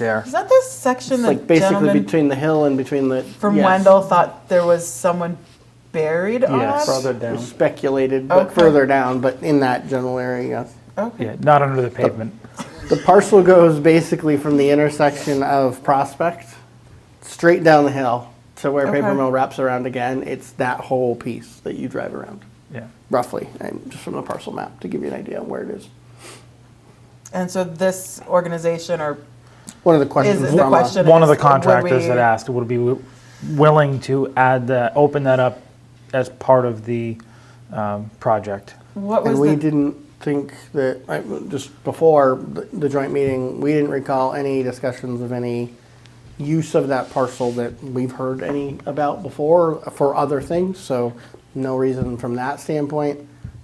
there. Is that the section It's that like basically gentleman between the hill and between the. from yes. Wendell thought there was someone buried Yes. on? Further down. Speculated, but Okay. further down, but in that general area, Okay. Yeah, not under the pavement. yes. The parcel goes basically from the intersection of Prospect, straight down the hill to where Paper Okay. Mill wraps around again. It's that whole piece that you drive around, Yeah. roughly, and just from the parcel map to give you an idea of where it is. And so this organization or One of the is questions the from uh, us- question One of the is, would contractors we- that asked would be wi- willing to add that, open that up as part of the um, project. What was And we the didn't think that, I- just before the- the joint meeting, we didn't recall any discussions of any use of that parcel that we've heard any about before for other things, so no reason from that standpoint.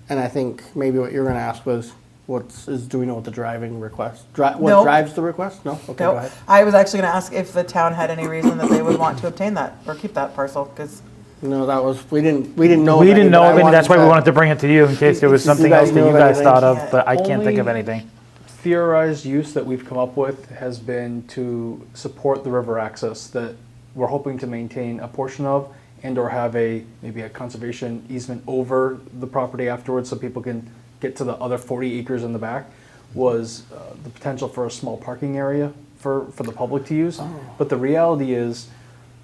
And I think maybe what you're gonna ask was, what's, is, do we know what the driving request, dri- No. what drives the request? No? Okay, go Nope. ahead. I was actually going to ask if the town had any reason that they would want to obtain that or keep that parcel because No, that was, we didn't, we didn't know. We of any, didn't but know I of any, that's why we wanted to to- bring it to you in case there was If you something guys else that knew you of guys anything. thought of, but I can't think of Only- anything. theorized use that we've come up with has been to support the river access that we're hoping to maintain a portion of and or have a maybe a conservation easement over the property afterwards so people can get to the other 40 acres in the back was uh, the potential for a small parking area for, for the public to use but the reality is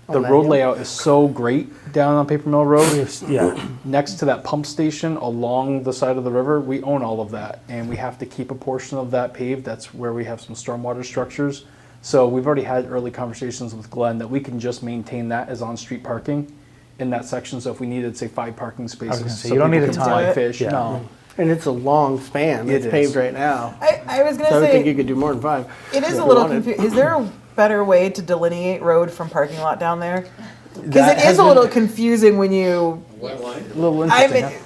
the On that road hill? layout is so great down on paper mill road Yeah, next to that pump station along the side of the river, we own all of that, and we have to keep a portion of that paved. That's where we have some stormwater structures. So we've already had early conversations with Glenn that we can just maintain that as on-street parking in that section. So if we needed, say, five parking spaces, gonna say, so you don't people need a can fly ton. Fish, Yeah. no. And it's a long span, It it's is. paved right now, I, I was going so I to would think you say could do more than five. it is if a you little wanted. confusing. Is there a better way to delineate road from parking lot down there? Because That it is has a little been- confusing when you. A little I interesting.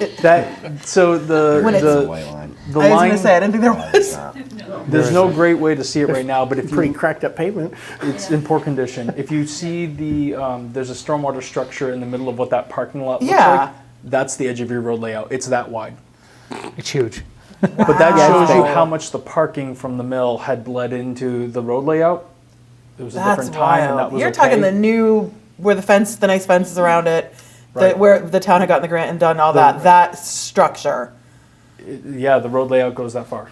mean, that so the When it's- the, White line. the I was line. going to say I didn't think there was. there's no great way to see it right now, but if Pretty you cracked up pavement. It's in poor condition. If you see the, um, there's a stormwater structure in the middle of what that parking lot looks Yeah. like. That's the edge of your road layout. It's that wide. it's huge. But that Wow. shows you how much the parking from the mill had bled into the road layout. It was a That's different time, and that wild. was You're talking the okay. new where the fence, the nice fences around it, the, Right. where the town had gotten the grant and done all that. That structure. yeah, the road layout goes that far.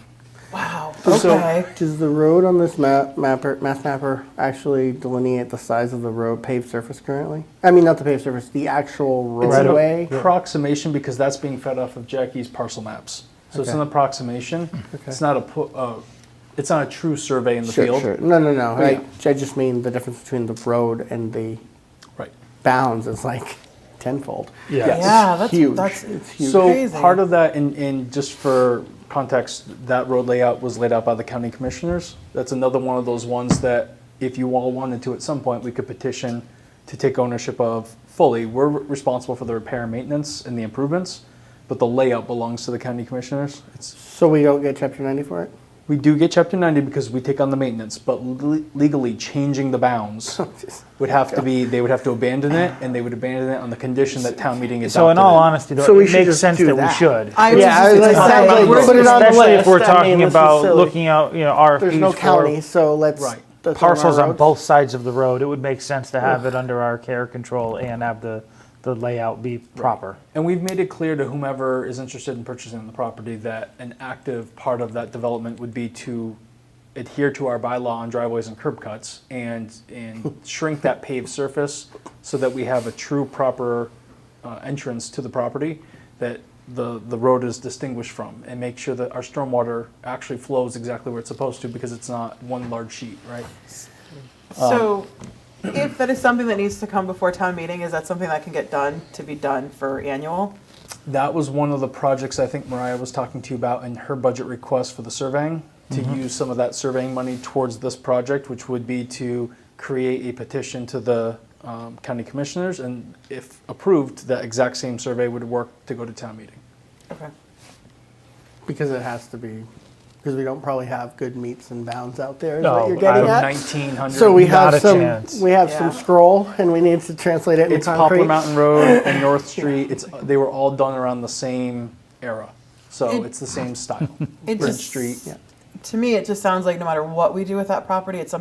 Wow. So, Okay. Does the road on this map mapper math mapper actually delineate the size of the road paved surface currently? I mean, not the paved surface, the actual It's roadway. an approximation because that's being fed off of Jackie's parcel maps. So it's Okay. an approximation. It's not a pu- uh, it's not a true survey in the Sure, field. sure. No, no, no. Oh, yeah. I, I just mean the difference between the road and the Right. bounds is like tenfold. Yeah. Yes. Yeah, that's huge. that's It's huge. So Crazy. part of that, and, and just for context, that road layout was laid out by the county commissioners. That's another one of those ones that, if you all wanted to, at some point, we could petition to take ownership of fully. We're responsible for the repair and maintenance and the improvements, but the layout belongs to the county commissioners. It's, So we don't get chapter ninety for it. we do get chapter ninety because we take on the maintenance, but le- legally changing the bounds would have to be, they would have to abandon it, and they would abandon it on the condition that town meeting adopted So in all it. honesty, So though, we it should makes just sense do that we that. should. I was Yeah, just I was gonna like, say, sounds we're- like- Put it on the Especially if list. we're I mean, talking this is about silly. looking out, you know, RFPs There's no for county, so let's Right. that's on our parcels on roads. both sides of the road. It would make sense to have it under our care control and have the the layout be proper. And we've made it clear to whomever is interested in purchasing the property that an active part of that development would be to adhere to our bylaw on driveways and curb cuts and, and shrink that paved surface so that we have a true proper uh, entrance to the property that the, the road is distinguished from and make sure that our stormwater actually flows exactly where it's supposed to because it's not one large sheet, right? uh, So, if that is something that needs to come before town meeting, is that something that can get done to be done for annual? That was one of the projects I think Mariah was talking to you about in her budget request for the surveying, to use some of that surveying money towards this project, which would be to create a petition to the um, county commissioners, and if approved, that exact same survey would work to go to town meeting. Okay. because it has to be because we don't probably have good meets and bounds out there. Is No, what you're getting I- at. Nineteen hundred. So we Not have a some. chance. We have Yeah. some scroll, and we need to translate it into It's concrete. Poplar Mountain Road and North Street. It's they were all done around the same era, so It- it's the same style. It Bridge just- Street. Yeah. to me, it just sounds like no matter what we do with that property, it's something